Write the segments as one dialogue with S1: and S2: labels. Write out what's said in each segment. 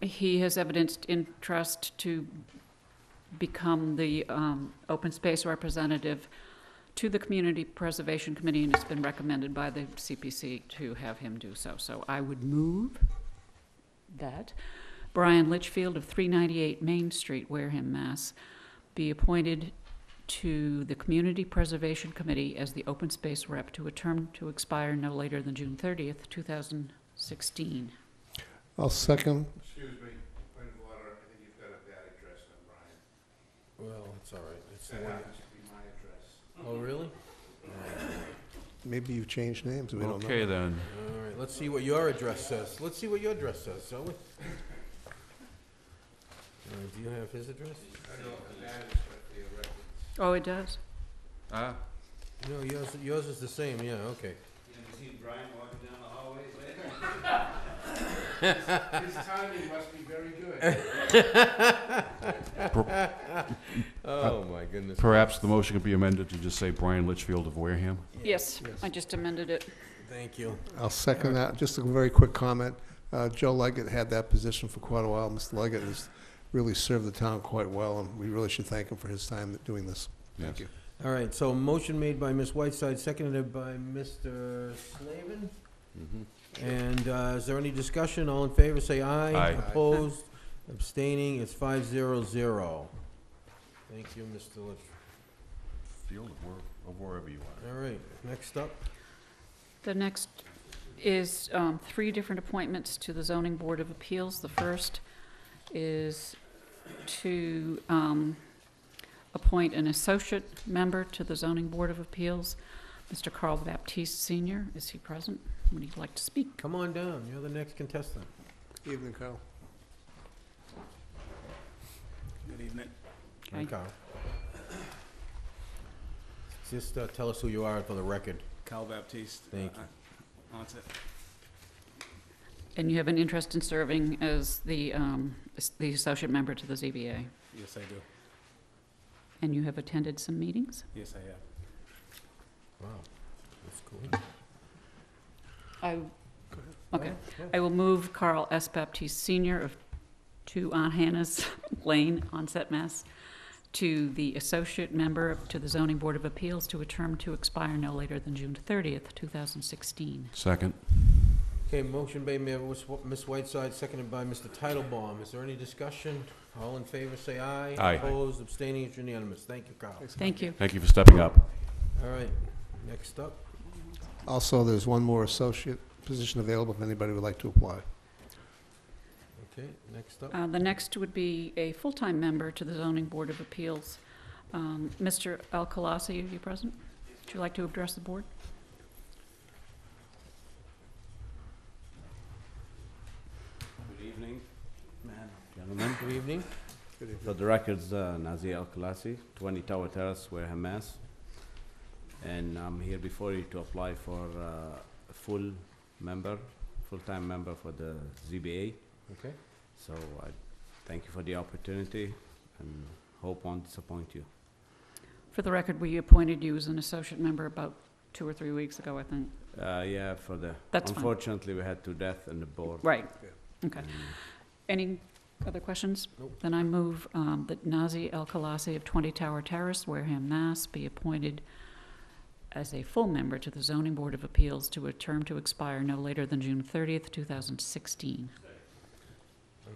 S1: He has evidenced interest to become the um, open space representative to the Community Preservation Committee, and it's been recommended by the CPC to have him do so. So I would move that Brian Litchfield of 398 Main Street, Wareham, Mass., be appointed to the Community Preservation Committee as the open space rep to a term to expire no later than June 30th, 2016.
S2: I'll second.
S3: Excuse me, point of order, I think you've got a bad address on Brian.
S4: Well, it's all right. It's the
S3: That
S4: one.
S3: happens to be my address.
S4: Oh, really?
S2: Maybe you've changed names, we don't know.
S5: Okay, then.
S4: All right. Let's see what your address says. Let's see what your address says, shall we? Uh, do you have his address?
S3: I don't know if it matters, but for your records.
S1: Oh, it does?
S5: Ah,
S4: No, yours, yours is the same. Yeah. Okay.
S3: You ever seen Brian walking down the hallways later? His timing must be very good.
S4: Oh my goodness.
S5: Perhaps the motion could be amended to just say Brian Litchfield of Wareham.
S1: Yes, I just amended it.
S4: Thank you.
S2: I'll second that. Just a very quick comment. Uh, Joe Leggett had that position for quite a while. Mr. Leggett has really served the town quite well, and we really should thank him for his time doing this. Thank
S5: Yes.
S2: you.
S4: All right. So motion made by Ms. Whiteside, seconded by Mr. Slavin.
S5: Mm-hmm.
S4: And uh, is there any discussion? All in favor, say aye.
S5: Aye.
S4: Opposed, abstaining, it's five zero zero. Thank you, Mr. Litch.
S5: Field of where- of wherever you are.
S4: All right, next up.
S1: The next is um, three different appointments to the Zoning Board of Appeals. The first is to um, appoint an associate member to the Zoning Board of Appeals. Mr. Carl Baptiste Senior, is he present? Would he like to speak?
S4: Come on down, you're the next contestant.
S2: Evening, Carl.
S6: Good evening.
S4: Hi,
S1: Okay.
S4: Carl. Just uh, tell us who you are for the record.
S6: Cal Baptiste.
S4: Thank
S6: uh, That's it.
S1: And you have an interest in serving as the, um, as the associate member to the ZBA,
S6: Yes, I do.
S1: and you have attended some meetings?
S6: Yes, I have.
S4: Wow, that's cool.
S1: I, okay.
S4: Yeah.
S1: I will move Carl S. Baptiste Senior of Two Aunt Hannah's Lane, Onset, Mass, to the associate member to the Zoning Board of Appeals to a term to expire no later than June thirtieth, two thousand sixteen.
S5: Second.
S4: Okay, motion by Ma- Ms. Wh- Ms. Whiteside, seconded by Mr. Titlebaum. Is there any discussion? All in favor, say aye.
S5: Aye.
S4: Opposed, abstaining, it's unanimous. Thank you, Carl.
S1: Thank you.
S5: Thank you for stepping up.
S4: All right, next up.
S2: Also, there's one more associate position available if anybody would like to apply.
S4: Okay, next up.
S1: Uh, the next would be a full-time member to the Zoning Board of Appeals. Um, Mr. Alcalasi, are you present? Would you like to address the board?
S3: Good evening,
S6: Man.
S3: gentlemen.
S4: Good evening.
S2: Good evening.
S3: For the records, uh, Nazir Al-Khalasi, 20 Tower Terrace, Wareham, Mass. And I'm here before you to apply for uh, a full member, full-time member for the ZBA.
S4: Okay.
S3: So I thank you for the opportunity and hope won't disappoint you.
S1: For the record, we appointed you as an associate member about two or three weeks ago, I think.
S3: Uh, Yeah, for the,
S1: That's fine.
S3: unfortunately, we had two deaths in the board.
S1: Right. Okay.
S3: And
S1: Any other questions?
S4: Nope.
S1: Then I move um, that Nazi El Khalasi of 20 Tower Terrace, Wareham, Mass. be appointed as a full member to the Zoning Board of Appeals to a term to expire no later than June 30th, 2016.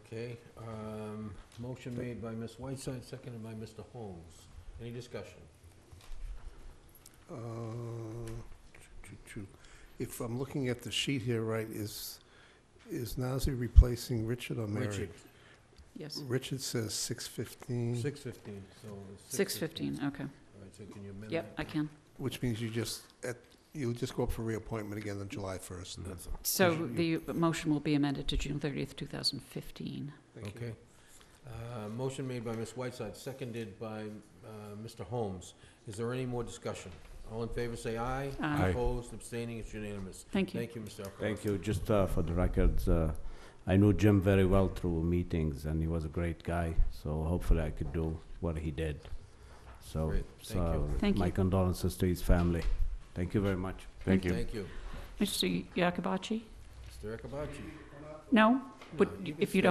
S4: Okay, um, motion made by Ms. Whiteside, seconded by Mr. Holmes. Any discussion?
S2: Uh, choo- choo. If I'm looking at the sheet here right, is, is Nazir replacing Richard or Mary?
S4: Richard,
S1: Yes.
S2: Richard says six fifteen,
S4: six fifteen, so. it's
S1: 6:15, okay.
S4: All right, so can you amend that?
S1: Yep, I can.
S2: which means you just, at- you'll just go up for reappointment again on July first.
S4: Mm-hmm.
S2: That's all.
S1: So
S2: Motion-
S1: the motion will be amended to June 30th, 2015.
S2: Thank you.
S4: Okay. Uh, motion made by Ms. Whiteside, seconded by, uh, Mr. Holmes. Is there any more discussion? All in favor, say aye.
S1: Aye.
S5: Aye.
S4: Opposed, abstaining, it's unanimous.
S1: Thank you.
S4: Thank you, Mr. Alcaraz.
S3: Thank you. Just uh, for the records, uh, I knew Jim very well through meetings, and he was a great guy, so hopefully I could do what he did. So,
S4: Great, thank
S3: so
S4: you.
S1: Thank
S3: my
S1: you.
S3: condolences to his family. Thank you very much.
S5: Thank you.
S4: Thank you.
S1: Mr. Yakabachi?
S4: Mr. Akabachi.
S1: No? Would-
S4: No, you can
S1: If you
S4: stay.
S1: don't